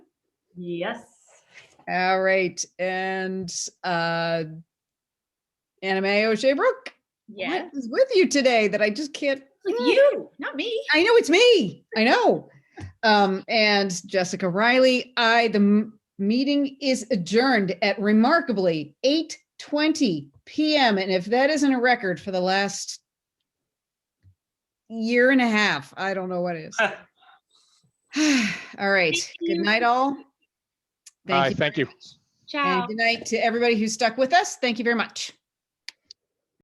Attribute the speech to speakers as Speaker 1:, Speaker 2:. Speaker 1: Yes.
Speaker 2: All right, and uh Anime O'Shea Brooke,
Speaker 1: Yeah.
Speaker 2: what is with you today that I just can't?
Speaker 1: Like you, not me.
Speaker 2: I know it's me. I know. Um, and Jessica Riley, I the m- meeting is adjourned at remarkably 8:20 p.m. And if that isn't a record for the last year and a half, I don't know what is. all right.
Speaker 1: Thank
Speaker 2: Good
Speaker 1: you.
Speaker 2: night, all.
Speaker 3: Hi, thank you.
Speaker 1: Ciao.
Speaker 2: And good night to everybody who stuck with us. Thank you very much.